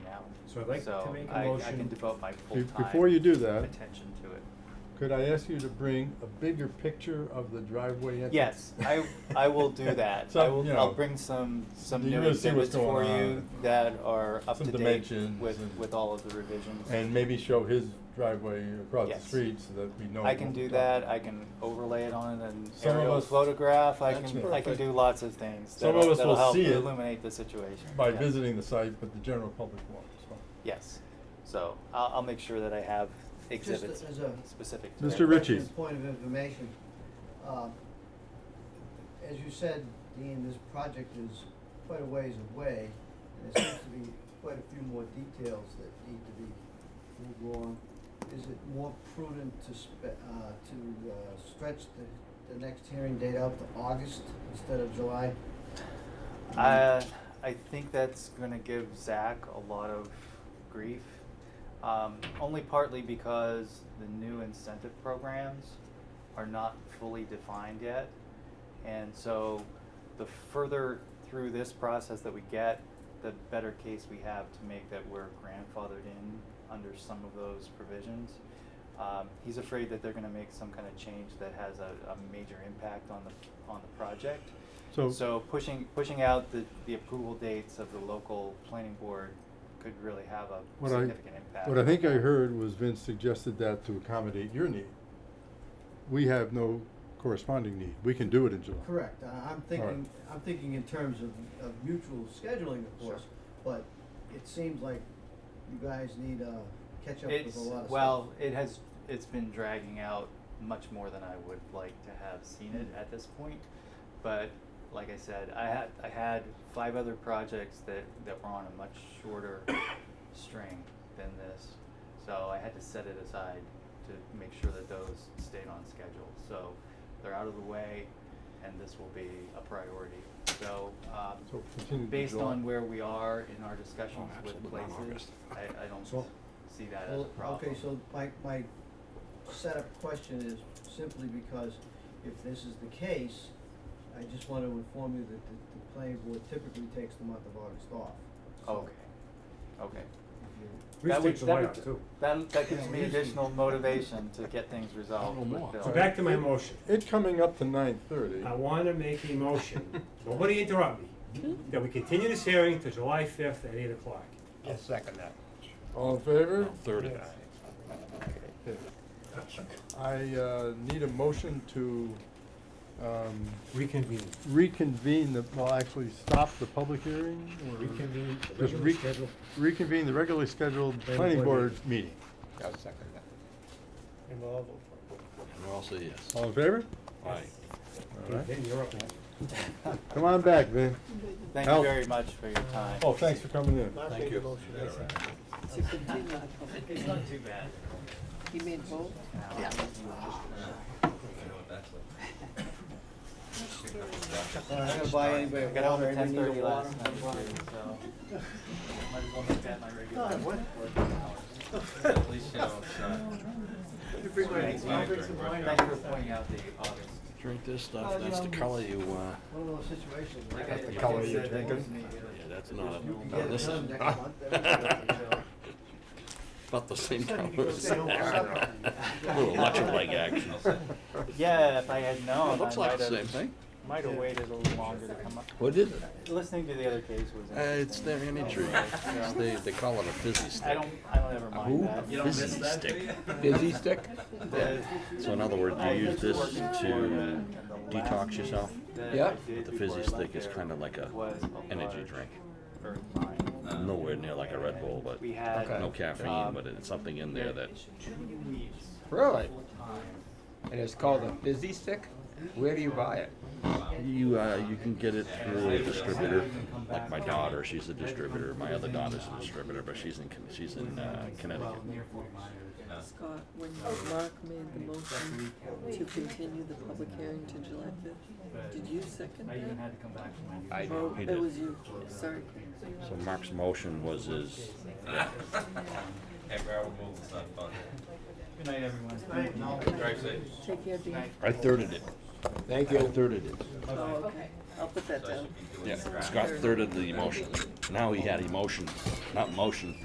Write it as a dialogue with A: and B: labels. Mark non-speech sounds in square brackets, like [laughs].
A: So I'd like to
B: So
A: make a
B: I, I
A: motion-
B: can devote my
C: Be-
B: full-time
C: Before you do that,
B: attention to it.
C: could I ask you to bring a bigger picture of the driveway entrance?
B: Yes, I, I will
C: [laughs]
B: do that. I
C: Some,
B: will,
C: you
B: I'll
C: know,
B: bring some, some
C: you
B: new
C: really see what's
B: exhibits for
C: going
B: you
C: on.
B: that are up
C: Some
B: to date
C: dimensions
B: with,
C: and-
B: with all of the revisions.
C: And maybe show his driveway across the
B: Yes.
C: street so that we know.
B: I can
C: what
B: do
C: we're
B: that,
C: talking
B: I can overlay it on an
C: Some of
B: aerial
C: us-
B: photograph, I
D: That's
B: can, I can
D: perfect.
B: do lots of things
C: Some of
B: that'll,
C: us
B: that'll
C: will
B: help
C: see it
B: illuminate the situation.
C: By
B: Yeah.
C: visiting the site, but the general public won't, so.
B: Yes, so I'll, I'll make sure that I have exhibits
D: as a-
B: specific to that.
C: Mr. Ritchie.
D: Question, Point of information. Uh, As you said, Dean, this project is quite a ways away, and there seems to be quite a few more details that need to be moved on. Is it more prudent to spe- uh, to, uh, stretch the, the next hearing date out to August instead of July?
B: I, Uh, I think that's gonna give Zach a lot of grief, um, only partly because the new incentive programs are not fully defined yet. And so the further through this process that we get, the better case we have to make that we're grandfathered in under some of those provisions. Um, he's afraid that they're gonna make some kind of change that has a, a major impact on the, on the project. So pushing, pushing out the, the approval dates of the local planning board could really have a
C: What I,
B: significant impact.
C: what I think I heard was Vince suggested that to accommodate your need. We have no corresponding need. We can do it in July.
D: Correct, I- I'm thinking, I'm thinking in terms of, of mutual scheduling, of course, but it seems like you guys need to catch up with
B: It's,
D: a lot of stuff.
B: well, it has, it's been dragging out much more than I would like to have seen
D: Hmm.
B: it at this point. But like I said, I had, I had five other projects that, that were on a much shorter
D: [coughs]
B: string than this. So I had to set it aside to make sure that those stayed on schedule. So they're out of the way and this will be a priority. So,
C: So continue
B: um,
C: to
B: based
C: July.
B: on where we are in our discussions with
E: absolutely, not
B: places,
E: August.
B: I, I don't
D: So-
B: see that as a
D: Well,
B: problem.
D: okay, so my, my setup question is simply because if this is the case, I just want to inform you that the, the planning board typically takes the month of August off. So
B: Okay, okay.
D: if you-
A: We
B: That
A: should
B: would-
A: take July
B: that
A: off
B: would-
A: too.
B: That, that gives
D: Yeah,
B: me
D: we usually-
B: additional
D: [laughs]
B: motivation to get things resolved
E: A little
B: with
E: more.
B: Bill.
A: So back
B: [laughs]
A: to my motion.
C: It coming up to nine thirty.
A: I wanna make a motion, nobody interrupt me, that we continue this hearing to July fifth at eight o'clock.
E: I'll second that.
C: All in favor?
E: Thirty.
C: Okay. I, uh, need a motion to, um,
A: Reconvene.
C: reconvene the, well, actually stop the public hearing or?
A: Reconvene, the
C: Just
A: regular
C: re-
A: schedule.
C: Reconvene the regularly scheduled
A: Planning
C: planning
A: board
C: board meeting.
E: I'll second that.
A: And we'll all vote for it.
E: And I'll say yes.
C: All in favor?
E: Aye.
C: All right.
A: Then you're up.
C: Come on back, Vin.
B: Thank you
C: Al-
B: very much for your time.
C: Oh, thanks for coming in.
E: Thank you.
F: To continue the public,
B: It's not too bad.
F: he made both? [laughs]
D: I'm not gonna buy anybody
B: Uh, I
D: a
B: got home
D: water,
B: at
D: I
B: ten
D: need a
B: thirty
D: water.
B: last night, too, so. Might as well make that my regular.
D: God, what?
B: At least, you know, it's not-
D: I'll bring some wine.
B: Thank you for pointing out the August.
E: Drink this
D: Oh,
E: stuff, that's the color you, uh,
D: um, One of those situations. where-
B: Like I- like I
C: color you're
B: said, that
C: drinking.
B: gives me,
E: yeah,
B: uh,
E: that's not,
D: You can
E: no,
D: get it
E: this is [laughs]
D: done next month.
B: so,
E: about the same
D: Said
E: color.
D: you could
E: as
D: stay home for
E: that. [laughs]
D: supper.
E: Little electric
D: [laughs]
E: action.
B: Yeah, if I had known, I might
E: Looks like the same
B: have,
E: thing.
B: might have waited a little longer to come up.
E: What is it?
B: Listening to the other case was interesting.
E: Uh, it's their
D: Oh,
E: energy.
B: [laughs]
E: It's the, they call it a fizzy
B: I
E: stick.
B: don't, I don't ever mind
E: Who?
B: that.
E: Fizzy stick. Fizzy stick? Yeah. So in other words, you use this to detox yourself?
B: Yeah.
E: But the fizzy stick is kind of like a energy drink. Nowhere near like a Red Bull, but
B: We had.
E: no
D: um,
E: caffeine, but it's something in there that
B: Two weeks.
G: Really?
B: full time.
G: And it's called a fizzy stick? Where do you buy it?
E: you, uh, you can get it through a distributor. Like my daughter, she's a distributor. My other daughter's a distributor, but she's in, Con- she's in, uh, Connecticut.
F: Scott, when Mark made the motion to continue the public hearing to July fifth, did you second
B: I even had
F: that?
B: to come back from my.
E: I,
F: Oh,
E: he
F: It
E: did.
F: was you, sorry.
E: So Mark's motion was his,
B: Good night, everyone.
F: Take care, Dean.
E: I thirded it.
G: Thank
E: I thirded it.
F: Oh, okay, I'll put that down.
E: Yeah, Scott thirded the motion. Now he had emotion, not motion.